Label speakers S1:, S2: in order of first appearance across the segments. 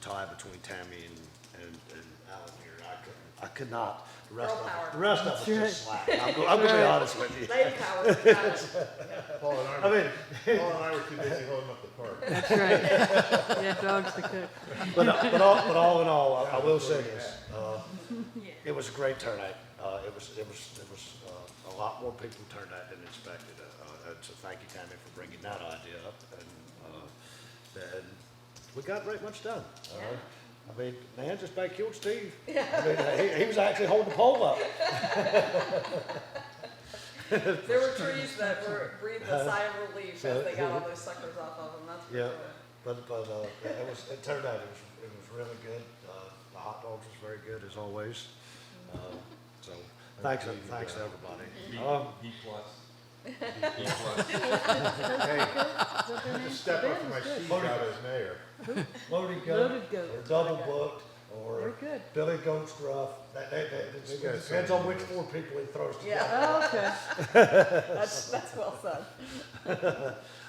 S1: tie between Tammy and, and, and Alan here. I couldn't, I could not, the rest
S2: Girl
S1: of,
S2: power.
S1: it- the rest of it's just slack. I'm go- I'm gonna be
S3: Right.
S1: honest with you.
S2: Lady power, got it.
S4: Paul and I,
S1: I
S4: were-
S1: mean,
S4: Paul and I were too busy holding up the park.
S3: That's right. Yeah, dog's the cook.
S1: But, but all, but all in all, I- I will say this, uh, it was a great turnout. Uh, it was, it was, it was, uh, a lot more people turned out than expected. Uh, uh, so thank you, Tammy, for bringing that idea up and, uh, and we got right much done. all right? I mean, man, just thank you, Steve. I mean, he, he was actually holding the pole up.
S2: There were trees that were breathed a sigh of relief as they got all those suckers off of them, that's for
S1: Yeah,
S2: sure.
S1: but, but, uh, it was, it turned out, it was, it was really good. Uh, the hot dogs was very good as always. Uh, so, thanks, uh, thanks to everybody. Um,
S5: B plus. B plus.
S4: Hey,
S3: What
S4: just step up for my seat out as mayor.
S1: Loaded
S3: Loaded
S1: goat,
S3: goat.
S1: or double booked, or
S3: We're good.
S1: Billy Goat Gruff, that, that, that,
S4: They got
S1: it depends on which
S4: something.
S1: four people he throws together.
S2: Yeah,
S3: Oh, okay.
S2: that's, that's well said.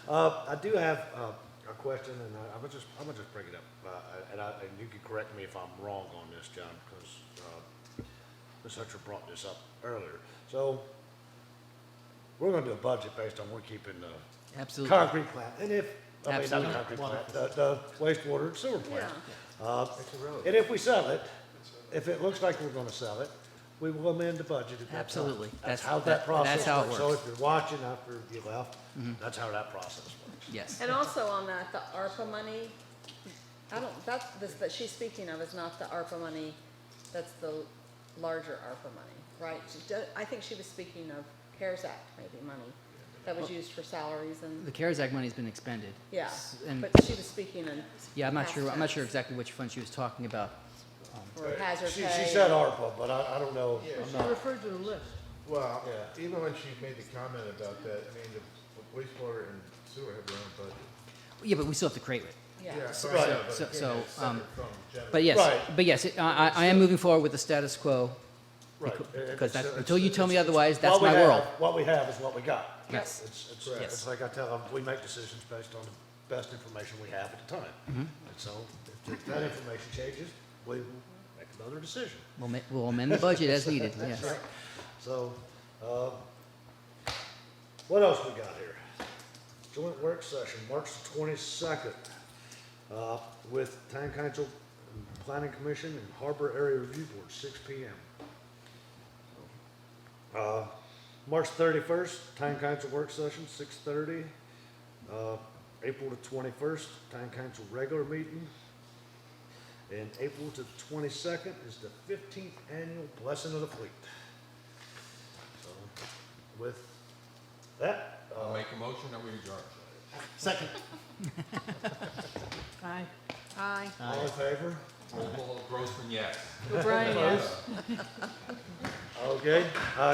S1: Uh, I do have, uh, a question, and I, I'm gonna just, I'm gonna just bring it up, uh, and I, and you can correct me if I'm wrong on this, John, because, uh, Ms. Hutcher brought this up earlier. So, we're gonna do a budget based on we're keeping uh, the
S6: Absolutely.
S1: concrete plant, and if, I mean, not the
S6: Absolutely.
S1: concrete plant, the, the wastewater and sewer plant. Uh,
S4: It's a road.
S1: And if we sell it, if it looks like we're gonna sell it, we will amend the budget at that time.
S6: Absolutely.
S1: That's
S6: That's-
S1: how that
S6: that-
S1: process
S6: that's how it
S1: works. So if
S6: works. Mm-hmm.
S1: you're watching after you left, that's how that process works.
S6: Yes.
S2: And also on that, the ARPA money, I don't, that's, this, that she's speaking of is not the ARPA money, that's the larger ARPA money, right? She do- I think she was speaking of CARES Act maybe money that was used for salaries and,
S6: The CARES Act money's been expended.
S2: yeah.
S6: S- And,
S2: But she was speaking in.
S6: yeah, I'm not sure, I'm not
S2: past
S6: sure exactly which fund she was talking about.
S2: tense, Or hazard
S1: She,
S2: pay.
S1: she said ARPA, but I, I don't know. I'm
S3: She
S1: not-
S3: referred to the list.
S4: Well,
S1: Yeah.
S4: even when she made the comment about that, I mean, the wastewater and sewer have their own budget.
S6: Yeah, but we still have to create it.
S2: Yeah,
S4: so,
S1: Right.
S6: so- so, um,
S4: but
S6: But yes,
S1: Right.
S6: but yes, it- I, I I am moving forward with the status quo.
S1: Right.
S6: becau-
S1: It-
S6: Because
S1: it's-
S6: that's,
S1: it's-
S6: until you tell me
S1: it's-
S6: otherwise, that's
S1: what we
S6: my
S1: have-
S6: world.
S1: What we have is what we got.
S2: Yes.
S1: It's, it's,
S4: Correct.
S1: it's like I tell them, we make decisions based on the best information we have at the time.
S6: Mm-hmm.
S1: And so if- if that information changes, we will make another decision.
S6: We'll, ma- we'll amend the budget as needed, yes.
S1: Right. So, um, what else we got here? Joint work session, March twenty-second, uh, with Town Council, Planning Commission, and Harbor Area Review Board, six P M. Uh, March thirty-first, Town Council work session, six thirty. Uh, April the twenty-first, Town Council regular meeting, and April to the twenty-second is the fifteenth annual Blessing of the Fleet. So, with that,
S5: I'll
S1: uh,
S5: make a motion that we adjourn.
S1: second,
S3: Aye.
S2: Aye.
S1: all in favor?
S5: Grossman, yes.
S3: O'Brien, yes.
S1: Okay, uh,